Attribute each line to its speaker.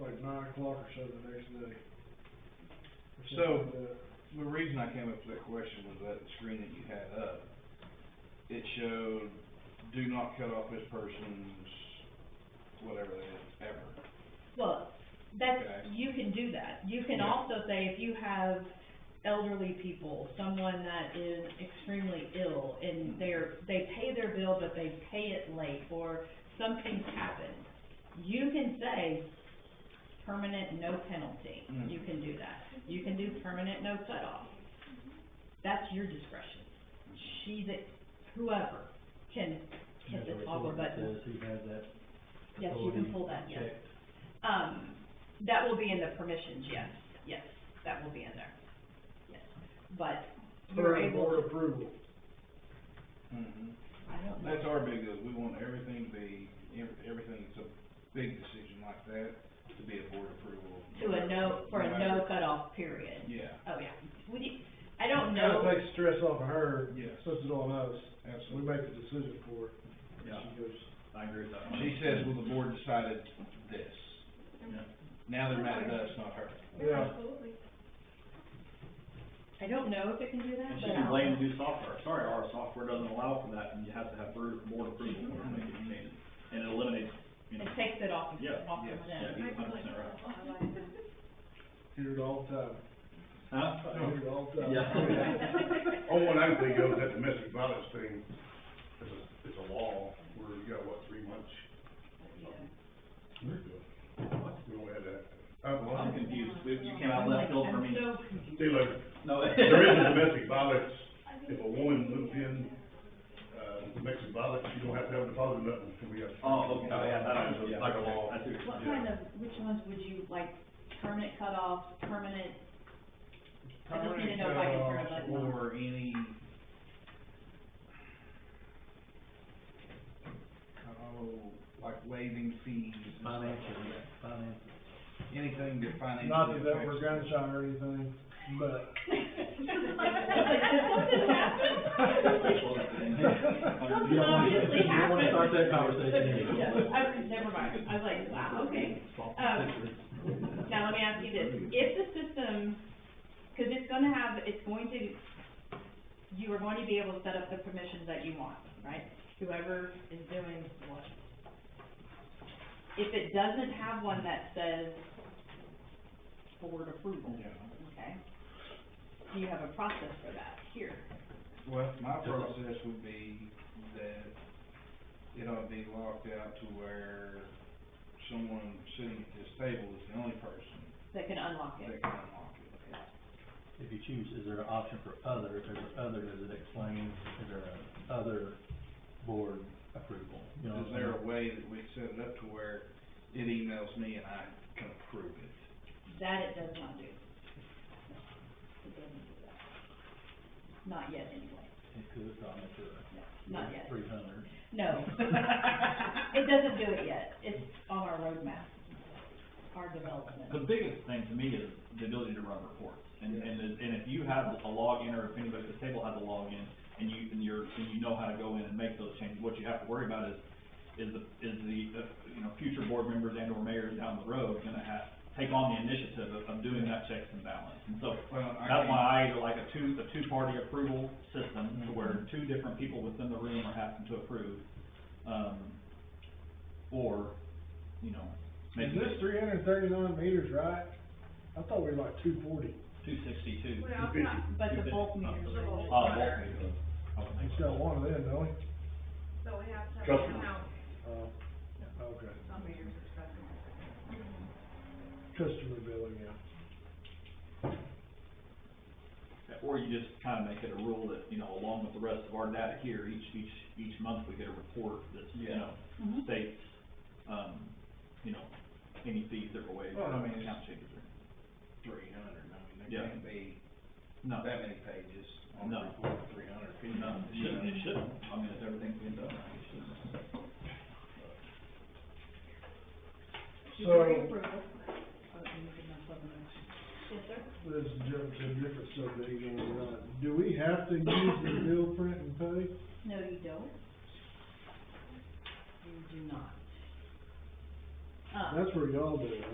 Speaker 1: nine o'clock or so the next day. Or something
Speaker 2: So-
Speaker 1: like that.
Speaker 2: The reason I came up with that question was that screen that you had up, it showed, do not cut off this person's, whatever that is, ever.
Speaker 3: Well, that's,
Speaker 2: Okay.
Speaker 3: you can do that. You can
Speaker 2: Yeah.
Speaker 3: also say if you have elderly people, someone that is extremely ill and
Speaker 2: Mhm.
Speaker 3: they're, they pay their bill but they pay it late or something's happened, you can say permanent no penalty.
Speaker 2: Mm.
Speaker 3: You can do that. You can do permanent no cutoff. That's your discretion. She, that, whoever can hit the toggle button.
Speaker 4: Says he has that.
Speaker 3: Yes, you can
Speaker 4: authority
Speaker 3: pull that, yes.
Speaker 4: checked.
Speaker 3: Um, that will be in the permissions, yes, yes, that will be in there, yes. But you're
Speaker 1: Per
Speaker 3: able
Speaker 1: board
Speaker 3: to,
Speaker 1: approval.
Speaker 4: Mm-hmm.
Speaker 2: Mhm.
Speaker 3: I don't know,
Speaker 2: That's our big deal, we want everything to be, ev- everything, it's a big decision like that, to be a board approval.
Speaker 3: to a no, for a
Speaker 2: matter-
Speaker 3: no cutoff period.
Speaker 2: Yeah,
Speaker 3: Oh, yeah, we, I don't
Speaker 1: Kind
Speaker 3: know,
Speaker 1: of takes stress off of her,
Speaker 2: Yes.
Speaker 1: puts it on us, we
Speaker 2: absolutely.
Speaker 1: make the decision for her.
Speaker 4: Yeah,
Speaker 1: She goes,
Speaker 4: I agree with that. one.
Speaker 2: She says, well, the board decided this.
Speaker 4: Yeah.
Speaker 2: Now they're mad at us, not her.
Speaker 1: yeah,
Speaker 5: Absolutely.
Speaker 3: I don't know if it can do that,
Speaker 4: And she
Speaker 3: but
Speaker 4: can
Speaker 3: I'll.
Speaker 4: blame new software, sorry, our software doesn't allow for that, and you have to have board board approval in order to make any changes. And it eliminates, you know,
Speaker 3: It takes it off,
Speaker 4: Yeah,
Speaker 3: of- off of
Speaker 2: yes,
Speaker 4: yeah,
Speaker 3: them.
Speaker 4: he's hundred percent right.
Speaker 5: I like that.
Speaker 1: hear it all the time,
Speaker 6: Uh-huh.
Speaker 1: I
Speaker 4: Huh?
Speaker 1: hear it all the time.
Speaker 4: Yeah.
Speaker 6: Oh, one I think of that domestic violence thing, it's a, it's a law where you got, what, three months? We don't have that. Uh,
Speaker 4: Well,
Speaker 6: well,
Speaker 4: I'm confused, We- you came out left field for
Speaker 3: I'm
Speaker 4: me.
Speaker 3: so confused.
Speaker 6: see, like,
Speaker 4: No.
Speaker 6: there is a domestic violence, if a woman moves in, uh, domestic violence, you don't have to have a deposit or nothing, so we got.
Speaker 4: Oh, okay, oh, yeah, that I was, yeah.
Speaker 6: Like a law.
Speaker 4: I see.
Speaker 5: What
Speaker 6: Yeah.
Speaker 5: kind of, which ones would you, like, permanent cutoffs, permanent, I just need to know if I can turn
Speaker 2: Permanent
Speaker 5: a button on.
Speaker 2: cutoffs Or any. Oh, like waiving fees. and stuff like that.
Speaker 4: financial.
Speaker 2: Anything that financially.
Speaker 1: Not that that
Speaker 2: affects
Speaker 1: we're
Speaker 2: the-
Speaker 1: gun shy or anything, but.
Speaker 3: Something obviously
Speaker 4: You don't wanna start that conversation.
Speaker 3: Yeah, I, never mind, I was like, wow, okay. Um, now let me ask you this, if the system, cause it's gonna have, it's going to, you are going to be able to set up the permissions that you want, right? Whoever is doing what. If it doesn't have one that says board approval,
Speaker 2: Yeah.
Speaker 3: okay? Do you have a process for that here?
Speaker 2: Well, my process would be that it ought to be locked out to where someone sitting at this table is the only person
Speaker 3: That can unlock it?
Speaker 2: that can unlock it.
Speaker 7: If you choose, is there an option for other, if there's an other, does it explain, is there an other board approval? You know what
Speaker 2: Is
Speaker 7: I'm
Speaker 2: there
Speaker 7: saying?
Speaker 2: a way that we set it up to where it emails me and I can approve it?
Speaker 3: That it does not do. It doesn't do that. Not yet, anyway.
Speaker 7: It could, probably, for
Speaker 3: No, not yet.
Speaker 7: three hundred.
Speaker 3: No. It doesn't do it yet. It's on our roadmap, our
Speaker 4: The
Speaker 3: development.
Speaker 4: biggest thing to me is the ability to run reports, and, and, and if you have a login, or if anybody at the table has a login, and you, and you're, and you know how to go in and make those changes, what you have to worry about is, is the, is the, uh, you know, future board members and or mayors down the road gonna have, take on the initiative of, of doing that checks and balance, and so,
Speaker 2: Well, I
Speaker 4: that's
Speaker 2: can't-
Speaker 4: why I like a two, a two-party approval system,
Speaker 3: Mm-hmm.
Speaker 4: to where two different people within the room are having to approve, um, or, you know,
Speaker 1: Is
Speaker 4: maybe
Speaker 1: this three hundred and thirty-nine meters, right? I thought we were like two forty.
Speaker 4: two sixty-two.
Speaker 5: Well, it's not,
Speaker 3: But the bulk meters are
Speaker 5: Oh,
Speaker 4: Oh,
Speaker 3: gonna,
Speaker 5: bulk.
Speaker 4: okay.
Speaker 1: He's got one of them, don't he?
Speaker 5: so we have to have
Speaker 6: Customers.
Speaker 5: an account
Speaker 1: Oh, okay.
Speaker 5: on meters for customers.
Speaker 1: Customer billing, yeah.
Speaker 4: Or you just kind of make it a rule that, you know, along with the rest of our data here, each, each, each month we get a report that's, you know,
Speaker 3: Mhm.
Speaker 4: states, um, you know, any fees that were waived,
Speaker 2: Well, I
Speaker 4: or
Speaker 2: mean,
Speaker 4: account changes. or-
Speaker 2: three hundred, I mean, there
Speaker 4: Yeah.
Speaker 2: can't be
Speaker 4: No,
Speaker 2: that many pages on the
Speaker 4: No.
Speaker 2: report, three hundred pages.
Speaker 4: no, it shouldn't, it shouldn't, I mean, if everything's being done, right, it shouldn't.
Speaker 1: So-
Speaker 3: Majority approval. Oh, you can have something else. Yes, sir?
Speaker 1: This is different, a different subject, you know, uh, do we have to use the bill print and pay?
Speaker 3: No, you don't. You do not. Um,
Speaker 1: That's where y'all do it, right?